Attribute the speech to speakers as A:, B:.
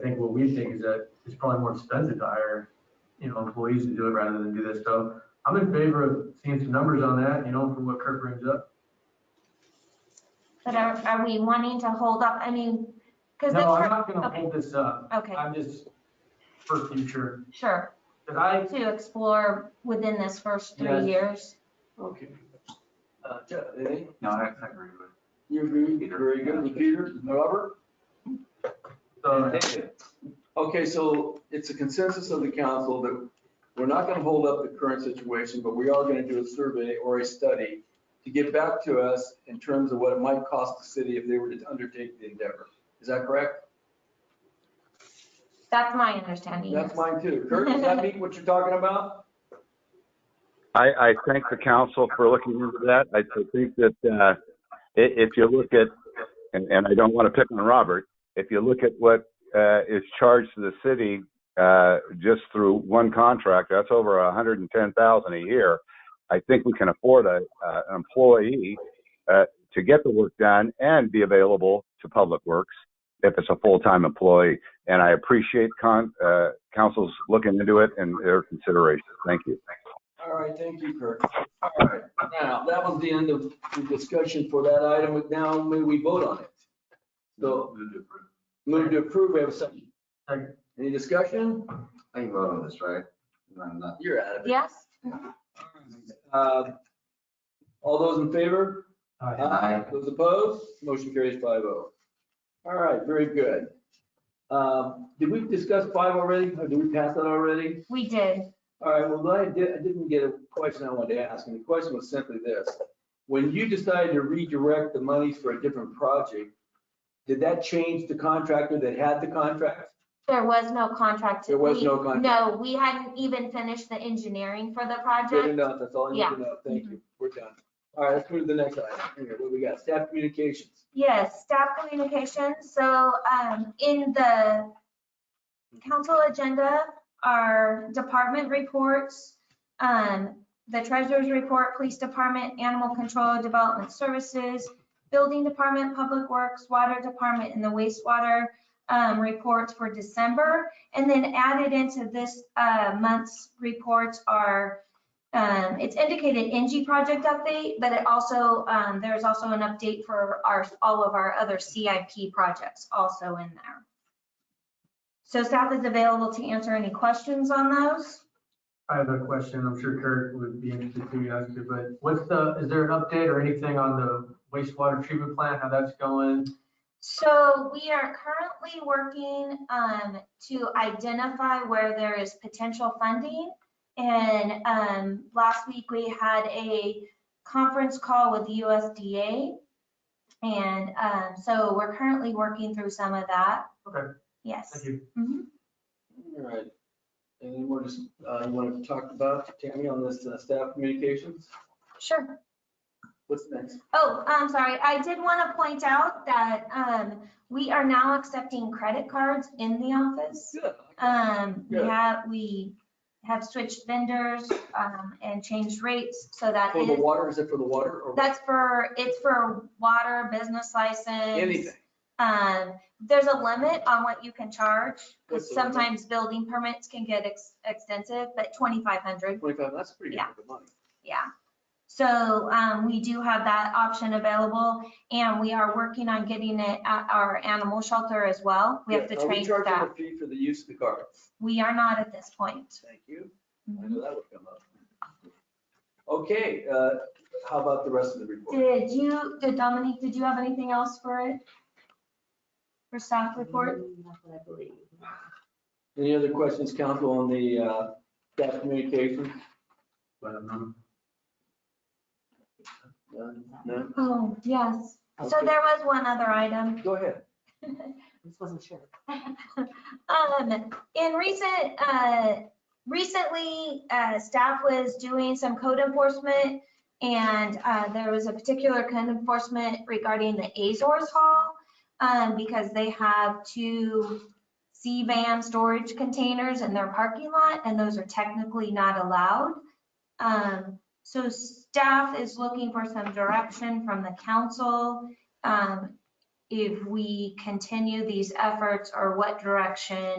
A: I think what we think is that it's probably more expensive to hire, you know, employees to do it rather than do this. So I'm in favor of seeing some numbers on that, you know, from what Kurt brings up.
B: But are, are we wanting to hold up, I mean, because the,
A: No, I'm
B: church-
A: not gonna hold this up.
B: okay,
A: I'm just for future,
B: sure,
A: cause I,
B: to explore within this first
A: Yes.
B: three years.
C: Okay. Uh, yeah, eh?
D: No, I I agree with
C: You agree? Very good. Peter, Robert?
A: so,
C: Okay, so it's a consensus of the council that we're not gonna hold up the current situation, but we are gonna do a survey or a study to get back to us in terms of what it might cost the city if they were to undertake the endeavor. Is that correct?
B: That's my understanding.
C: That's
B: yes.
C: mine too. Kurt, does that mean what you're talking about?
E: I, I thank the council for looking into that. I I think that uh, i- if you look at, and, and I don't want to pick on Robert, if you look at what uh, is charged to the city uh, just through one contract, that's over a hundred and ten thousand a year. I think we can afford a, uh, an employee uh, to get the work done and be available to public works if it's a full-time employee. And I appreciate con, uh, council's looking into it and their consideration. Thank you.
C: All right, thank you, Kurt. All right, now, that was the end of the discussion for that item. Now, may we vote on it? So,
D: it.
C: move to approve, we have a second.
A: Second.
C: Any discussion?
D: I can vote on this, right? I'm not.
C: You're out of it.
B: Yes,
C: Uh, All those in favor?
A: uh,
D: Aye.
C: Those opposed? Motion carries five oh. All right, very good. Um, Did we discuss five already? Or did we pass that already?
B: we did.
C: All right, well, I did, I didn't get a question I wanted to ask, and the question was simply this. When you decided to redirect the monies for a different project, did that change the contractor that had the contract?
B: There was no contract.
C: There was
B: We-
C: no contract.
B: No, we hadn't even finished the engineering for the
C: Good
B: project.
C: enough, that's all I need
B: Yeah. Mm-hmm.
C: to know, thank you, we're done. All right, let's move to the next item, here, what we got, staff communications.
B: Yes, staff communication. So um, in the council agenda are department reports, um, the treasurer's report, police department, animal control, development services, building department, public works, water department, and the wastewater um, reports for December. And then added into this uh, month's reports are um, it's indicated NG project update, but it also, um, there's also an update for our, all of our other CIP projects also in there. So staff is available to answer any questions on those.
A: I have a question. I'm sure Kurt would be interested to ask you, but what's the, is there an update or anything on the wastewater treatment plant, how that's going?
B: So we are currently working, um, to identify where there is potential funding. And, um, last week we had a conference call with USDA. And, um, so we're currently working through some of that.
A: Okay.
B: Yes.
A: Thank you.
B: Mhm.
C: All right, and then we're just, uh, you want to talk about, Tammy, on this uh, staff communications?
B: Sure.
C: What's next?
B: Oh, I'm sorry. I did want to point out that um, we are now accepting credit cards in the office.
C: Good.
B: Um, We
C: Good.
B: have, we have switched vendors um, and changed rates, so that
C: For the
B: is,
C: water, is it for the water or
B: that's for, it's for water, business license.
C: anything?
B: Um, There's a limit on what you can charge, because
C: What's the limit?
B: sometimes building permits can get ex- extensive, but 2,500
C: Twenty-five, that's pretty good
B: Yeah.
C: for the money.
B: Yeah. So um, we do have that option available and we are working on getting it at our animal shelter as well. We have to
C: Yeah, are
B: train
C: Charging
B: staff.
C: a fee for the use of the card.
B: We are not at this point. Mm-hmm.
C: Thank you. I know that would come up. Okay, uh, how about the rest of the report?
B: Did you, did Dominique, did you have anything else for it? For staff report?
F: That's what I believe.
C: Any other questions, council, on the uh, staff communication?
A: But um,
C: None? None?
B: Oh, yes. So
C: Okay.
B: there was one other item.
C: Go ahead.
F: I just wasn't sure.
B: Um, in recent, uh, recently, uh, staff was doing some code enforcement and, uh, there was a particular code enforcement regarding the Azores Hall, um, because they have two C-VAN storage containers in their parking lot and those are technically not allowed. Um, so staff is looking for some direction from the council, um, if we continue these efforts or what direction